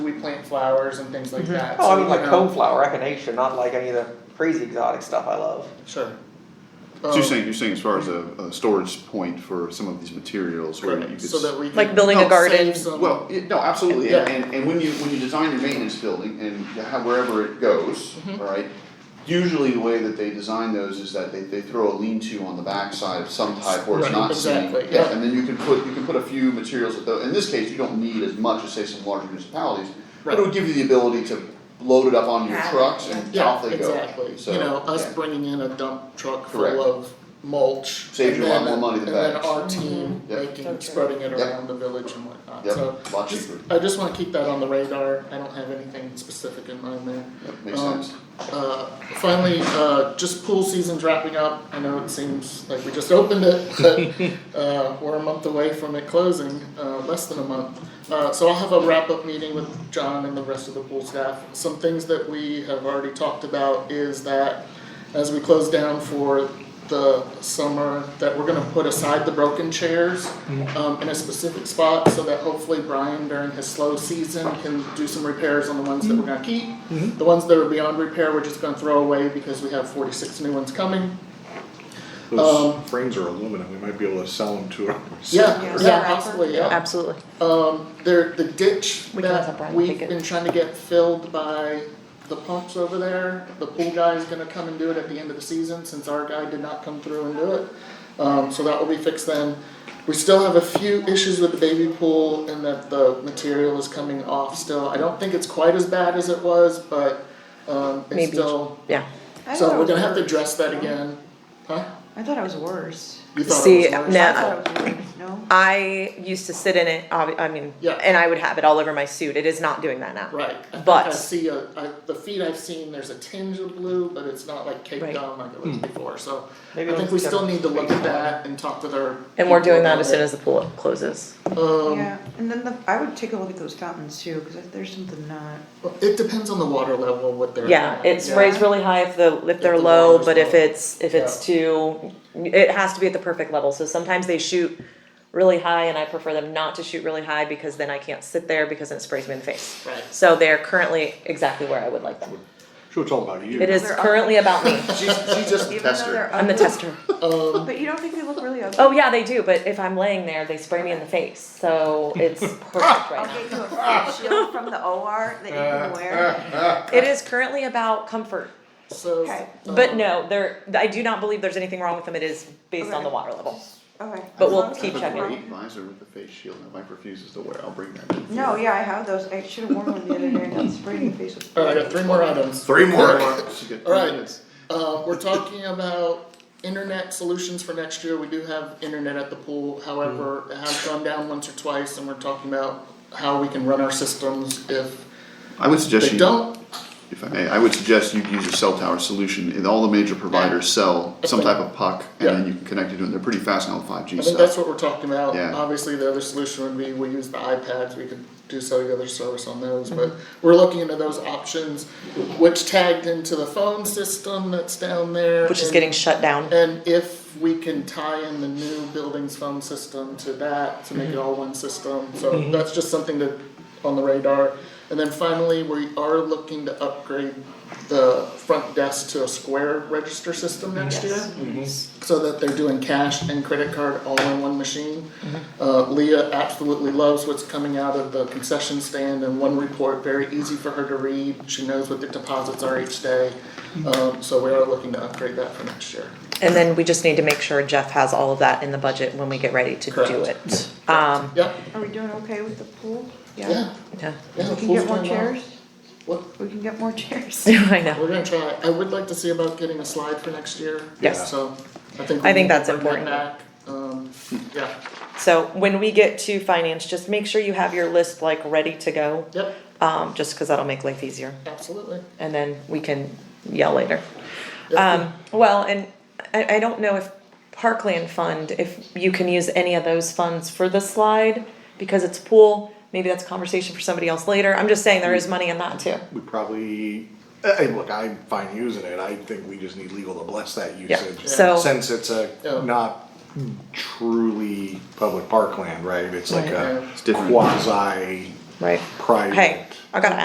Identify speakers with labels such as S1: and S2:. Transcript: S1: plant flowers and things like that.
S2: Oh,
S1: So,
S2: I mean
S1: you
S2: like
S1: know,
S2: coneflower, echinacea, not like any of the crazy exotic stuff I love.
S1: Sure.
S3: So you're
S1: Um,
S3: saying, you're saying as far as a, a storage point for some of these materials where you
S1: Correct,
S3: could.
S1: so that we can.
S4: Like building a
S1: help save
S4: garden.
S1: some-
S3: Well, yeah, no, absolutely,
S1: Yeah.
S3: and, and, and when you, when you design your maintenance building and how, wherever it goes,
S1: Mm-hmm.
S3: alright? Usually the way that they design those is that they, they throw a lean-to on the backside of some type where it's
S1: Right,
S3: not seen.
S1: exactly, yeah.
S3: And then you can put, you can put a few materials, at the- in this case, you don't need as much as say some larger municipalities, but it would give you the ability to load it up onto your
S5: Right,
S3: trucks and
S1: Yeah,
S3: off they go,
S1: exactly,
S3: so,
S1: you know, us
S3: yeah.
S1: bringing in a dump truck
S3: Correct.
S1: full of mulch.
S3: Saves
S1: and
S3: you a lot
S1: then-
S3: more money than
S1: And
S3: bags.
S1: then our team
S3: Yep.
S1: making,
S5: Okay.
S1: spreading it
S3: Yep.
S1: around the village and whatnot,
S3: Yep,
S1: so.
S3: lot
S1: just-
S3: cheaper.
S1: I just wanna keep that on the radar, I don't have anything specific in mind there.
S3: Yep, Makes
S1: Um,
S3: sense.
S1: Uh, finally, uh, just pool season's wrapping up, I know it seems like we just opened it, but, uh, we're a month away from it closing, uh, less than a month. Uh, so I'll have a wrap-up meeting with John and the rest of the pool staff, some things that we have already talked about is that as we close down for the summer, that we're gonna put aside the broken chairs um, in a specific spot, so that hopefully Brian during his slow season can do some repairs on the ones that we're gonna keep. The ones that are beyond repair, we're just gonna throw away because we have forty-six new ones coming. Um,
S6: Those frames are aluminum, we might be able to sell them to ourselves.
S1: Yeah,
S5: Yeah.
S1: yeah, possibly, yeah.
S4: Absolutely.
S1: Um, there, the ditch
S4: We can let
S1: that
S4: Brian
S1: we've
S4: pick it.
S1: been trying to get filled by the pumps over there, the pool guy is gonna come and do it at the end of the season, since our guy did not come through and do it. Um, so that will be fixed then. We still have a few issues with the baby pool and that the material is coming off still. I don't think it's quite as bad as it was, but, um, it's
S4: Maybe.
S1: still,
S4: Yeah.
S5: I thought
S1: so
S5: it
S1: we're
S5: was
S1: gonna have to
S5: worse.
S1: address that again, huh?
S5: I thought it was worse.
S1: You thought
S4: See,
S1: it was worse?
S4: now-
S5: I thought it was worse, no?
S4: I used to sit in it, obvi- I mean,
S1: Yeah.
S4: and I would have it all over my suit. It is not doing that now.
S1: Right, I think
S4: But-
S1: I see a, I, the feed I've seen, there's a tinge of blue, but it's not like caked
S4: Right.
S1: on like it was before, so. I
S2: Maybe
S1: think
S2: let's
S1: we
S2: get
S1: still
S2: a
S1: need to look at
S2: baseline.
S1: that and talk to their.
S4: And we're
S1: people
S4: doing that
S1: about
S4: as soon
S1: it.
S4: as the pool closes.
S1: Um,
S5: Yeah, and then the, I would take a look at those fountains too, cause there's something not,
S1: it depends on the water level, what they're.
S4: Yeah,
S1: at.
S4: it
S1: Yeah.
S4: sprays really high if the, if they're
S1: the
S4: low,
S1: water's
S4: but if
S1: low.
S4: it's, if it's too, it has to be at the perfect level. So sometimes they shoot really high and I prefer them not to shoot really high because then I can't sit there because then it sprays me in the face.
S1: Right.
S4: So they're currently exactly where I would like them.
S6: Sure, it's all about you.
S4: It is
S5: They're
S4: currently about me.
S3: She's, she's just a
S5: even though
S3: tester.
S5: they're
S4: I'm the
S5: ugly-
S4: tester.
S1: Um,
S5: But you don't think they look really ugly?
S4: Oh yeah, they do, but if I'm laying there, they spray me in the face, so it's perfect right
S5: I'll
S4: now.
S5: get you a face shield from the OR that you
S1: Uh,
S5: can wear.
S4: It is currently about comfort,
S1: so.
S5: Okay.
S1: um,
S4: but no, there, I do not believe there's anything wrong with them, it is based on the water level.
S5: Okay.
S4: But
S5: as
S4: we'll
S5: long as
S4: keep
S5: it's
S4: checking.
S3: I have a
S5: fine.
S3: great visor with a face shield that Mike refuses to wear, I'll bring that in.
S5: No, yeah, I have those, I should have worn one the other day, and got sprayed in the face with.
S1: All right, I got three more items.
S6: Three
S3: She got
S1: All
S3: three
S1: right.
S3: minutes.
S1: Uh, we're talking about internet solutions for next year. We do have internet at the pool, however, it has gone down once or twice, and we're talking about how we can run our systems if
S3: I would suggest
S1: they
S3: you,
S1: don't.
S3: if I may, I would suggest you use a cell tower solution, and all the major providers sell some type of puck, and
S1: Yeah.
S3: then you can connect it to it, they're pretty fast now with five G
S1: I
S3: stuff.
S1: think that's what we're talking about.
S3: Yeah.
S1: Obviously, the other solution would be we use the iPads, we could do cellular service on those, but we're looking into those options, which tagged into the phone system that's down there.
S4: Which is
S1: and-
S4: getting shut down,
S1: And if we can tie in the new building's phone system to that, to make it all one system, so that's just something to, on the radar. And then finally, we are looking to upgrade the front desk to a square register system next year. So that they're doing cash and credit card all in one machine. Uh, Leah absolutely loves what's coming out of the concession stand and one report, very easy for her to read. She knows what the deposits are each day. Um, so we are looking to upgrade that for next year.
S4: and then we just need to make sure Jeff has all of that in the budget when we get ready to do
S1: Correct.
S4: it. Um,
S1: Yeah,
S5: Are we doing okay with the pool?
S1: yeah,
S4: yeah,
S1: yeah.
S5: We can
S1: pool's
S5: get more
S1: doing well.
S5: chairs?
S1: What,
S5: We can get more chairs.
S4: I know,
S1: we're gonna try, I would like to see about getting a slide for next year.
S4: Yes.
S1: So I think. we
S4: I think
S1: need to
S4: that's
S1: bring that
S4: important.
S1: Back, um, yeah,
S4: so when we get to finance, just make sure you have your list like ready to go.
S1: yep,
S4: Um, just cause that'll make life easier.
S1: absolutely.
S4: and then we can yell later.
S1: Yeah.
S4: Um, well, and I, I don't know if Parkland Fund, if you can use any of those funds for the slide, because it's pool, maybe that's a conversation for somebody else later, I'm just saying there is money in that too.
S6: We probably, I, I- look, I'm fine using it, I think we just need legal to bless that
S4: Yeah,
S6: usage.
S4: so,
S6: Since it's
S1: Yeah.
S6: a not truly public parkland, right, it's like
S1: Right.
S6: a
S3: It's different.
S6: quasi
S4: right,
S6: private.
S4: hey, I gotta